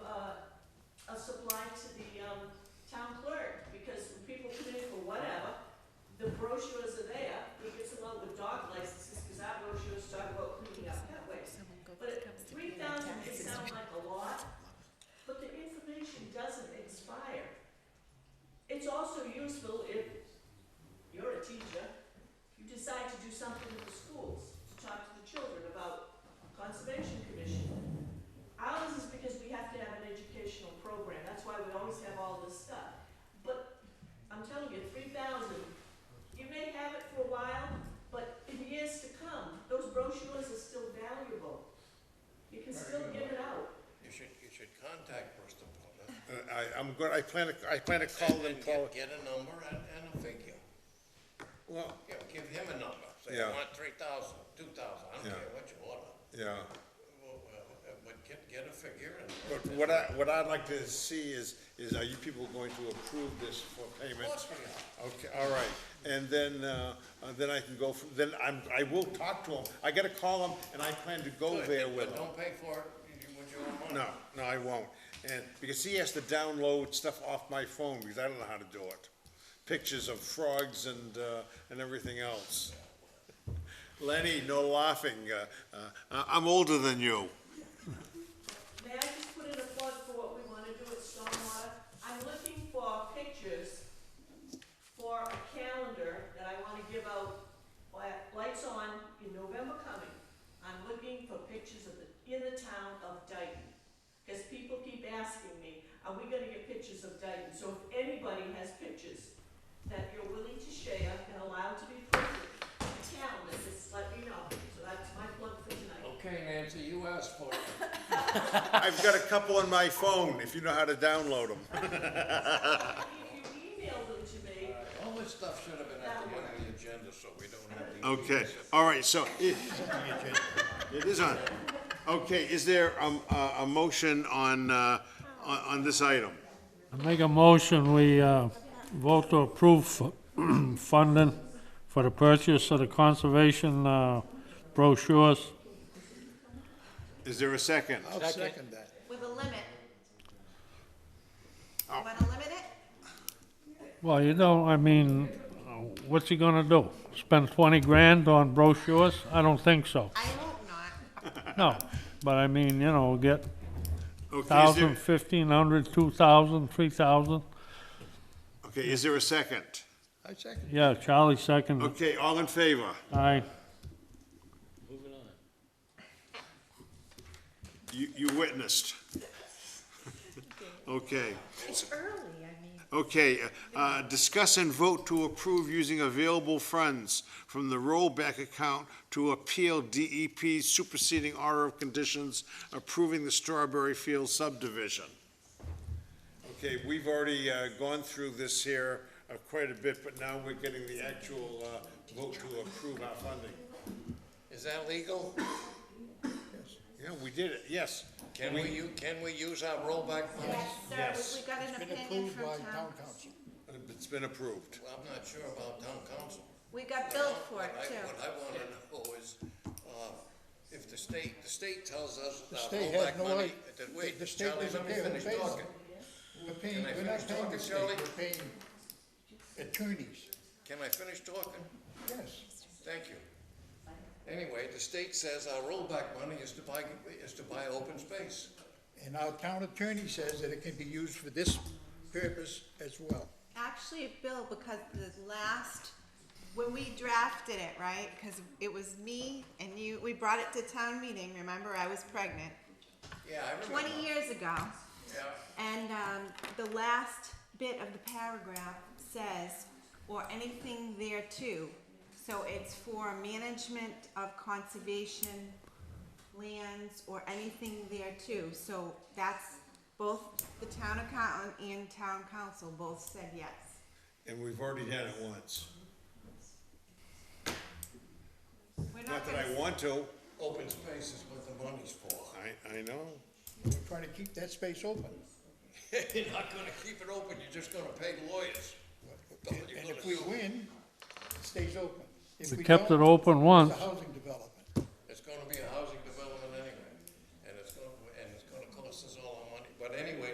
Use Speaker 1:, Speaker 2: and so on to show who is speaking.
Speaker 1: uh, um,
Speaker 2: I, I'm good, I plan to, I plan to call them,
Speaker 3: And
Speaker 2: call,
Speaker 3: get- Get a number and, and a figure.
Speaker 2: well,
Speaker 3: You know, give him a number. Say,
Speaker 2: Yeah.
Speaker 3: I want three thousand, two thousand, I
Speaker 2: Yeah.
Speaker 3: don't care what you order.
Speaker 2: yeah.
Speaker 3: Well, well, But get, get a figure and.
Speaker 2: But what I, what I'd like to see is, is are you people going to approve this for
Speaker 3: Of
Speaker 2: payment?
Speaker 3: course we are.
Speaker 2: Okay, all right, and then, uh, uh, then I can go, from- then I'm, I will talk to him, I gotta call him, and I plan to go
Speaker 3: Good,
Speaker 2: there
Speaker 3: but
Speaker 2: with him.
Speaker 3: Don't pay for it, you- with your own money.
Speaker 2: No, no, I won't, and, because he has to download stuff off my phone, because I don't know how to do it. Pictures of frogs and, uh, and everything else. Lenny, no laughing, uh, uh, I- I'm older than you.
Speaker 1: May I just put in a plug for what we wanna do at Stormwater? I'm looking for pictures for a calendar that I wanna give out, li- lights on in November coming. I'm looking for pictures of the, in the town of Dayton. Cause people keep asking me, are we gonna get pictures of Dayton? So if anybody has pictures that you're willing to share and allowed to be printed, a calendar, just let me know. So that's my plug for tonight.
Speaker 3: Okay, Nancy, you asked for it.
Speaker 2: I've got a couple on my phone, if you know how to download them.
Speaker 1: If you email them to me,
Speaker 3: All this stuff should have been at the end of the agenda, so we don't have to.
Speaker 2: Okay, all right, so it, it is on. Okay, is there um, a, a motion on, uh, on, on this item?
Speaker 4: I Make a motion, we uh, vote to approve fu- funding for the purchase of the conservation uh, brochures.
Speaker 2: Is there a second?
Speaker 5: With a limit. You wanna limit it?
Speaker 4: Well, you know, I mean, uh, what's he gonna do? Spend 20 grand on brochures? I don't think so,
Speaker 5: I hope not.
Speaker 4: no. But I mean, you know, get
Speaker 2: Okay, is
Speaker 4: 1,000,
Speaker 2: there,
Speaker 4: 1,500, 2,000, 3,000.
Speaker 2: okay, is there a second?
Speaker 4: Yeah, Charlie second,
Speaker 2: Okay, all in favor?
Speaker 4: aye.
Speaker 2: You, you witnessed. Okay,
Speaker 5: It's early, I mean.
Speaker 2: okay, uh, discuss and vote to approve using available funds from the rollback account to appeal DEP superseding order of conditions approving the Strawberry Field subdivision. Okay, we've already uh, gone through this here uh, quite a bit, but now we're getting the actual uh, vote to approve our funding.
Speaker 3: Is that legal?
Speaker 2: Yeah, we did it, yes.
Speaker 3: Can we, u- can we use our rollback money?
Speaker 5: Yes,
Speaker 2: Yes.
Speaker 5: sir, we- we got an opinion from town.
Speaker 2: Uh, It's been approved.
Speaker 3: Well, I'm not sure about town council.
Speaker 5: We got billed for it
Speaker 3: What I- What
Speaker 5: too.
Speaker 3: I wanna know is, uh, if the state, the state tells us that
Speaker 6: state
Speaker 3: rollback
Speaker 6: has no
Speaker 3: money, that,
Speaker 6: right- the
Speaker 3: wait,
Speaker 6: state
Speaker 3: Charlie,
Speaker 6: doesn't
Speaker 3: let me
Speaker 6: pay them
Speaker 3: finish
Speaker 6: pays.
Speaker 3: talking.
Speaker 6: We're paying,
Speaker 3: Can I
Speaker 6: we're not
Speaker 3: finish
Speaker 6: paying
Speaker 3: talking,
Speaker 6: the state,
Speaker 3: Shirley?
Speaker 6: we're paying attorneys,
Speaker 3: Can I finish talking?
Speaker 6: yes.
Speaker 3: Thank you. Anyway, the state says our rollback money is to buy, is to buy open space.
Speaker 6: And our town attorney says that it can be used for this purpose as well.
Speaker 5: Actually, it billed because the last, when we drafted it, right, cause it was me and you, we brought it to town meeting, remember, I was pregnant,
Speaker 3: Yeah, I remember.
Speaker 5: twenty years ago.
Speaker 3: Yeah.
Speaker 5: And um, the last bit of the paragraph says, or anything there too. So it's for management of conservation lands or anything there too. So that's both the town accountant and town council both said yes.
Speaker 2: And we've already done it once.
Speaker 5: We're
Speaker 2: Not that
Speaker 5: gonna-
Speaker 2: I want to.
Speaker 3: Open space is what the money's for.
Speaker 2: I, I know.
Speaker 6: We're trying to keep that space open.
Speaker 3: You're not gonna keep it open, you're just gonna pay lawyers. That's all you're
Speaker 6: And
Speaker 3: gonna
Speaker 6: if we
Speaker 3: do.
Speaker 6: win, it stays open. If
Speaker 4: We
Speaker 6: we
Speaker 4: kept it
Speaker 6: don't,
Speaker 4: open once.
Speaker 6: It's a housing development.
Speaker 3: It's gonna be a housing development anyway, and it's gonna, and it's gonna cost us all our money, but anyway,